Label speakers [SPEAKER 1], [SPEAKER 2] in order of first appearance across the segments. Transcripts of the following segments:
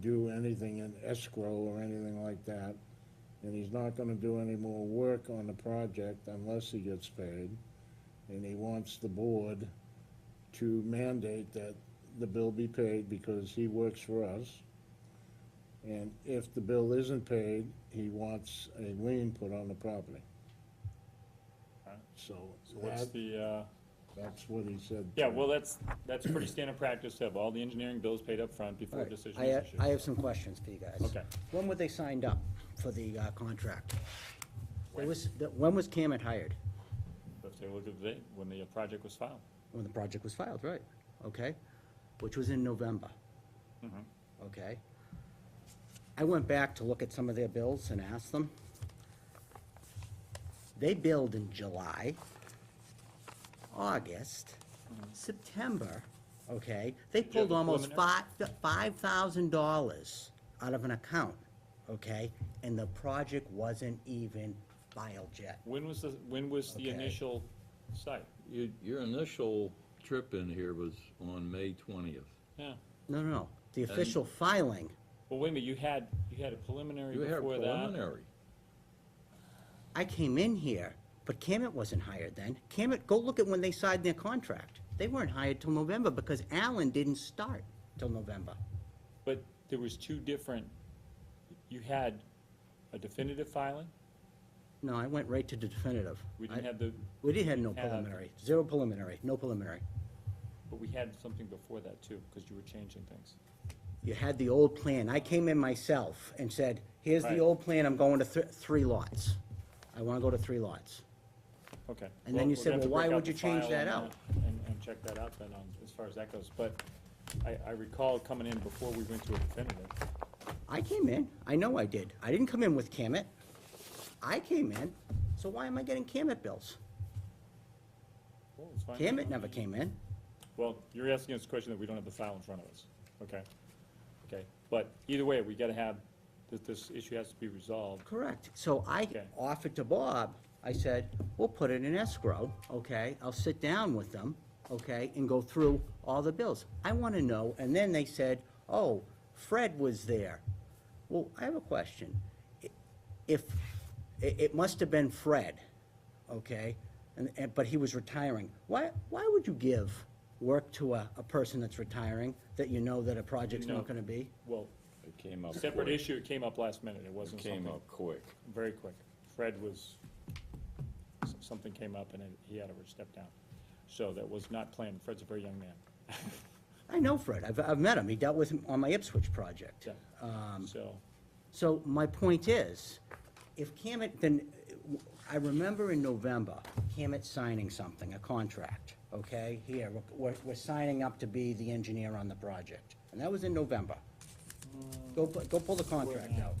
[SPEAKER 1] do anything in escrow or anything like that. And he's not gonna do any more work on the project unless he gets paid. And he wants the board to mandate that the bill be paid because he works for us. And if the bill isn't paid, he wants a lien put on the property.
[SPEAKER 2] Alright.
[SPEAKER 1] So
[SPEAKER 2] So what's
[SPEAKER 1] that-
[SPEAKER 2] the, uh,
[SPEAKER 1] that's what he said.
[SPEAKER 2] yeah, well, that's, that's pretty standard practice to have all the engineering bills paid up front before a
[SPEAKER 3] Alright,
[SPEAKER 2] decision
[SPEAKER 3] I
[SPEAKER 2] is
[SPEAKER 3] have,
[SPEAKER 2] issued.
[SPEAKER 3] I have some questions for you guys.
[SPEAKER 2] Okay.
[SPEAKER 3] When were they signed up for the uh, contract? It
[SPEAKER 2] When?
[SPEAKER 3] was, the- when was Camet hired?
[SPEAKER 2] Let's take a look at the date, when the uh, project was filed.
[SPEAKER 3] When the project was filed, right, okay? Which was in November. Mm-hmm. Okay? I went back to look at some of their bills and asked them. They billed in July, August, Mm-hmm. September, okay? They
[SPEAKER 2] you have
[SPEAKER 3] pulled
[SPEAKER 2] the
[SPEAKER 3] almost
[SPEAKER 2] preliminary?
[SPEAKER 3] five, five thousand dollars out of an account, okay? And the project wasn't even filed yet.
[SPEAKER 2] When was the, when was the
[SPEAKER 3] Okay.
[SPEAKER 2] initial site?
[SPEAKER 4] You, your initial trip in here was on May twentieth.
[SPEAKER 2] Yeah.
[SPEAKER 3] No, no, no, the official filing,
[SPEAKER 2] Well, wait a minute, you had, you had a preliminary
[SPEAKER 4] You had
[SPEAKER 2] before that?
[SPEAKER 4] preliminary.
[SPEAKER 3] I came in here, but Camet wasn't hired then. Camet, go look at when they signed their contract. They weren't hired till November because Allen didn't start till November.
[SPEAKER 2] But there was two different, you had a definitive filing?
[SPEAKER 3] No, I went right to definitive.
[SPEAKER 2] We didn't
[SPEAKER 3] I-
[SPEAKER 2] have the,
[SPEAKER 3] We didn't have no
[SPEAKER 2] have-
[SPEAKER 3] preliminary, zero preliminary, no preliminary.
[SPEAKER 2] but we had something before that too, because you were changing things.
[SPEAKER 3] You had the old plan. I came in myself and said, here's
[SPEAKER 2] Right.
[SPEAKER 3] the old plan, I'm going to th- three lots. I wanna go to three lots.
[SPEAKER 2] Okay.
[SPEAKER 3] And then
[SPEAKER 2] we're
[SPEAKER 3] you said,
[SPEAKER 2] gonna have to
[SPEAKER 3] "Well, why
[SPEAKER 2] break out
[SPEAKER 3] would
[SPEAKER 2] the
[SPEAKER 3] you change
[SPEAKER 2] file
[SPEAKER 3] that
[SPEAKER 2] on
[SPEAKER 3] out?"
[SPEAKER 2] And, and check that out then on, as far as that goes, but I, I recall coming in before we went to a definitive.
[SPEAKER 3] I came in, I know I did. I didn't come in with Camet. I came in, so why am I getting Camet bills?
[SPEAKER 2] Well, it's fine.
[SPEAKER 3] Camet never came in.
[SPEAKER 2] Well, you're asking us a question that we don't have the file in front of us, okay? Okay, but either way, we gotta have, this, this issue has to be resolved.
[SPEAKER 3] Correct. So I
[SPEAKER 2] Okay.
[SPEAKER 3] offered to Bob, I said, we'll put it in escrow, okay? I'll sit down with them, okay, and go through all the bills. I want to know, and then they said, oh, Fred was there. Well, I have a question. I- If, it, it must have been Fred, okay? And, and, but he was retiring. Why, why would you give work to a, a person that's retiring that you know that a project's
[SPEAKER 2] No.
[SPEAKER 3] not going to be?
[SPEAKER 2] Well,
[SPEAKER 4] It came up
[SPEAKER 2] separate
[SPEAKER 4] quick.
[SPEAKER 2] issue, it came up last minute, it
[SPEAKER 4] It
[SPEAKER 2] wasn't
[SPEAKER 4] came
[SPEAKER 2] something,
[SPEAKER 4] up quick.
[SPEAKER 2] very quick. Fred was, s- something came up and it- he had to step down. So that was not planned, Fred's a very young man.
[SPEAKER 3] I know Fred. I've, I've met him. He dealt with him on my Ipswich project.
[SPEAKER 2] Yeah.
[SPEAKER 3] Um,
[SPEAKER 2] So,
[SPEAKER 3] So my point is, if Camet, then, I remember in November, Camet signing something, a contract, okay? Here, we're, we're signing up to be the engineer on the project, and that was in November. Go, pu- go pull the contract out.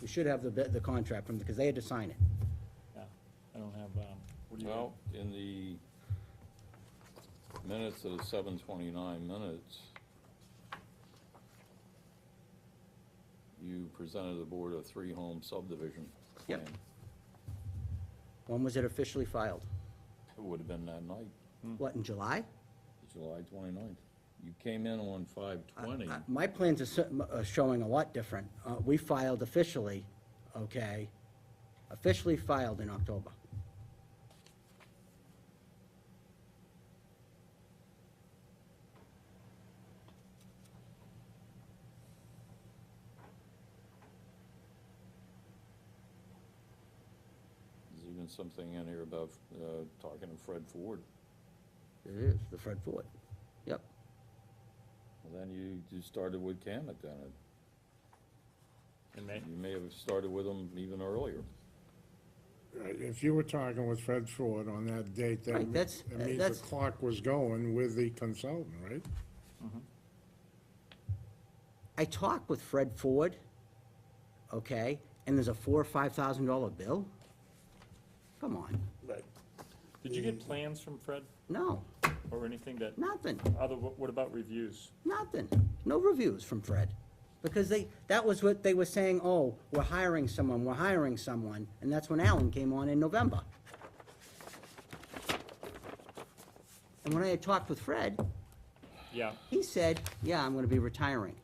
[SPEAKER 3] We should have the, bit- the contract from, because they had to sign it.
[SPEAKER 2] yeah, I don't have, um, what do you?
[SPEAKER 4] Well, in the minutes of the seven twenty-nine minutes, you presented the board a three-home subdivision
[SPEAKER 3] Yep.
[SPEAKER 4] plan.
[SPEAKER 3] When was it officially filed?
[SPEAKER 4] It would have been that night,
[SPEAKER 3] What, in July?
[SPEAKER 4] July 29th. You came in on five twenty.
[SPEAKER 3] Uh, My plans are cer- are showing a lot different. Uh, We filed officially, okay, officially filed in October.
[SPEAKER 4] There's even something in here about, uh, talking to Fred Ford.
[SPEAKER 3] It is, the Fred Ford. Yep.
[SPEAKER 4] Well, then you, you started with Camet then.
[SPEAKER 2] In May?
[SPEAKER 4] You may have started with him even earlier.
[SPEAKER 1] Right, uh, If you were talking with Fred Ford on that date, that
[SPEAKER 3] Right,
[SPEAKER 1] me-
[SPEAKER 3] that's- uh,
[SPEAKER 1] that means the
[SPEAKER 3] that's-
[SPEAKER 1] clock was going with the consultant, right?
[SPEAKER 3] I talked with Fred Ford, okay, and there's a four or five thousand dollar bill? Come on.
[SPEAKER 1] Right.
[SPEAKER 2] Did you get plans from Fred
[SPEAKER 3] No,
[SPEAKER 2] or anything that,
[SPEAKER 3] nothing,
[SPEAKER 2] other, what what about reviews?
[SPEAKER 3] nothing. No reviews from Fred. Because they, that was what they were saying, oh, we're hiring someone, we're hiring someone, and that's when Alan came on in November. And when I had talked with Fred,
[SPEAKER 2] Yeah,
[SPEAKER 3] he said, yeah, I'm gonna be retiring.